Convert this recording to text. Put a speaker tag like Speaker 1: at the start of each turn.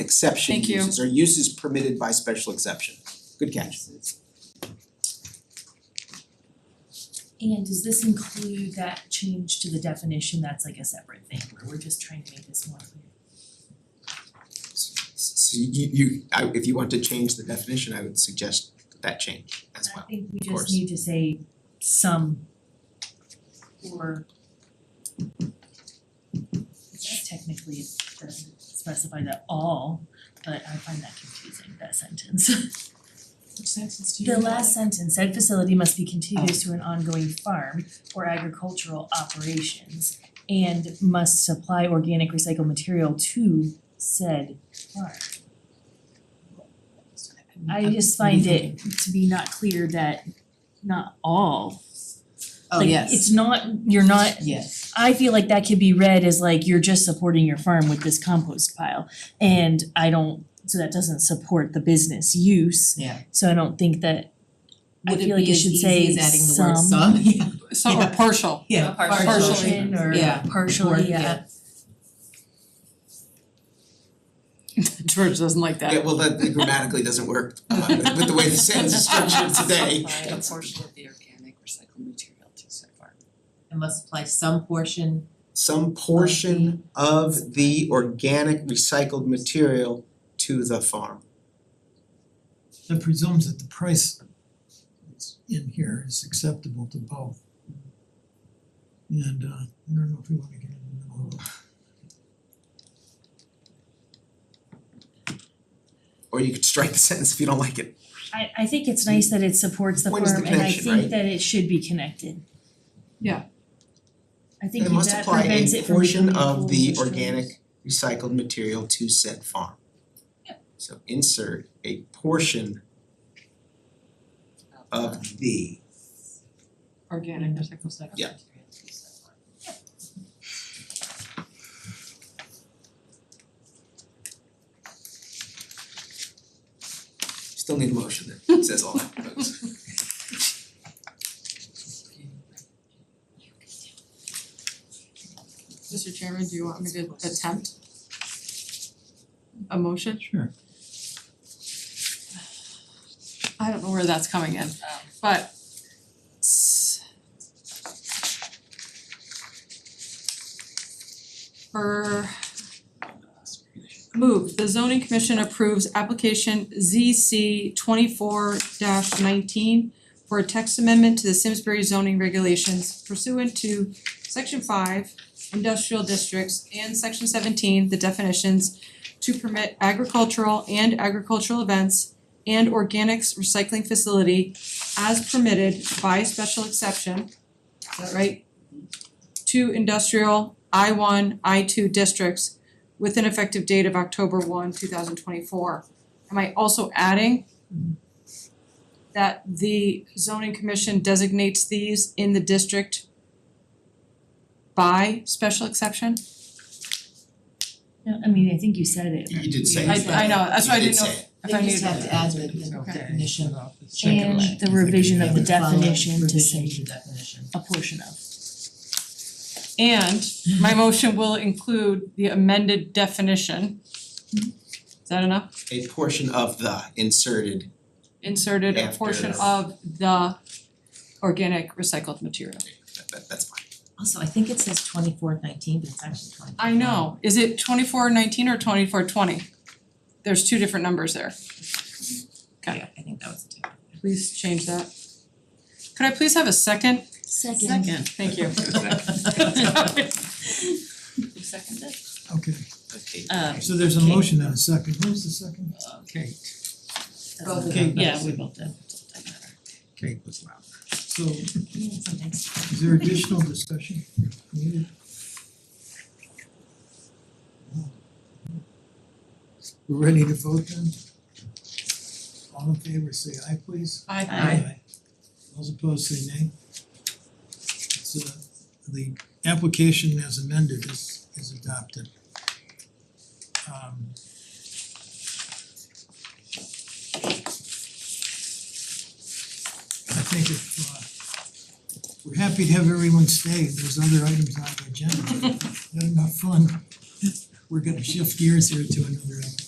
Speaker 1: exception
Speaker 2: Thank you.
Speaker 1: uses or uses permitted by special exception. Good catch.
Speaker 3: And does this include that change to the definition, that's like a separate thing, where we're just trying to make this more clear?
Speaker 4: So you you I if you want to change the definition, I would suggest that change as
Speaker 3: I
Speaker 4: well.
Speaker 3: think we
Speaker 4: course.
Speaker 3: just need to say some or Yes, technically it doesn't specify that all, but I find that confusing, that sentence.
Speaker 2: Which sentence do you
Speaker 3: The
Speaker 2: have?
Speaker 3: last sentence, said facility must be contiguous to an ongoing farm or agricultural operations and must supply organic recycled material to said farm. I just find it to be not clear that not all,
Speaker 2: Oh,
Speaker 3: like,
Speaker 2: yes.
Speaker 3: it's not, you're not,
Speaker 2: Yes.
Speaker 3: I feel like that could be read as like you're just supporting your farm with this compost pile. And I don't, so that doesn't support the business use.
Speaker 2: Yeah.
Speaker 3: So I don't think that, I
Speaker 2: Would
Speaker 3: feel like it should say
Speaker 2: be as easy as adding the word
Speaker 3: some
Speaker 2: some? Yeah.
Speaker 5: Some are
Speaker 2: Yeah.
Speaker 5: partial.
Speaker 2: Yeah.
Speaker 5: Partial.
Speaker 2: Partially.
Speaker 3: portion or
Speaker 2: Yeah. Or-
Speaker 3: partially, yeah,
Speaker 2: yeah.
Speaker 5: George doesn't like
Speaker 4: Yeah,
Speaker 5: that.
Speaker 4: well, that that grammatically doesn't work uh, with with the way the sentence is structured today.
Speaker 6: Apply a portion of the organic recycled material to said farm.
Speaker 2: It must apply some portion.
Speaker 4: Some portion of the organic recycled material to the farm.
Speaker 7: That presumes that the price that's in here is acceptable to both. And uh I don't know if we wanna get into the middle of
Speaker 4: Or you could strike the sentence if you don't like it.
Speaker 3: I I think it's nice that it supports the
Speaker 4: What is the
Speaker 3: farm and I
Speaker 4: connection,
Speaker 3: think
Speaker 4: right?
Speaker 3: that it should be connected.
Speaker 5: Yeah.
Speaker 3: I think
Speaker 4: It must
Speaker 3: that
Speaker 4: apply
Speaker 3: prevents
Speaker 4: a
Speaker 3: it from
Speaker 4: portion
Speaker 3: becoming
Speaker 4: of
Speaker 3: full
Speaker 4: the
Speaker 3: destroyed.
Speaker 4: organic recycled material to said farm. So insert a portion of the.
Speaker 5: Organic recycled stuff.
Speaker 4: Yeah. Still need a motion that says all that, folks.
Speaker 5: Mister Chairman, do you want me to attempt a motion?
Speaker 7: it. Sure.
Speaker 5: I don't know where that's coming in, but s- for move, the zoning commission approves application ZC twenty-four nineteen for a text amendment to the Simsbury zoning regulations pursuant to section five, industrial districts, and section seventeen, the definitions to permit agricultural and agricultural events and organics recycling facility as permitted by special exception, is that right? To industrial I one, I two districts with an effective date of October one, two thousand twenty-four. Am I also adding that the zoning commission designates these in the district by special exception?
Speaker 3: No, I mean, I think you said it.
Speaker 4: You did say
Speaker 5: I
Speaker 4: it.
Speaker 5: I know, that's why I
Speaker 4: You did
Speaker 5: didn't
Speaker 4: say
Speaker 5: know if
Speaker 4: it.
Speaker 5: if I knew
Speaker 2: They just have
Speaker 5: that.
Speaker 2: to add the you know,
Speaker 5: Okay.
Speaker 2: definition of.
Speaker 3: And the revision of the
Speaker 2: following
Speaker 3: definition to
Speaker 2: revision
Speaker 3: say
Speaker 2: of the definition.
Speaker 3: a portion of.
Speaker 5: And my motion will include the amended definition. Is that enough?
Speaker 4: A portion of the inserted,
Speaker 5: Inserted a
Speaker 4: After.
Speaker 5: portion of the organic recycled material.
Speaker 4: that that that's fine.
Speaker 2: Also, I think it says twenty-four nineteen, but it's actually twenty.
Speaker 5: I know, is it twenty-four nineteen or twenty-four twenty? There's two different numbers there, Got
Speaker 2: Yeah, I think that was it.
Speaker 5: please change that. Could I please have a second?
Speaker 3: Second.
Speaker 5: Thank you.
Speaker 7: Okay,
Speaker 4: Okay.
Speaker 6: Um,
Speaker 7: so there's a motion and a second. Where's the second?
Speaker 6: okay.
Speaker 2: Both of
Speaker 7: Okay.
Speaker 2: them.
Speaker 6: Yeah, we both did, doesn't matter.
Speaker 7: Okay. So is
Speaker 2: Yeah, sometimes.
Speaker 7: there additional discussion needed? We're ready to vote then? All in favor, say aye please.
Speaker 2: Aye.
Speaker 7: Those opposed say nay. So the application as amended is is adopted. Um. I think if uh we're happy to have everyone stay, there's other items on the agenda, Had enough fun. We're gonna shift gears here to another application.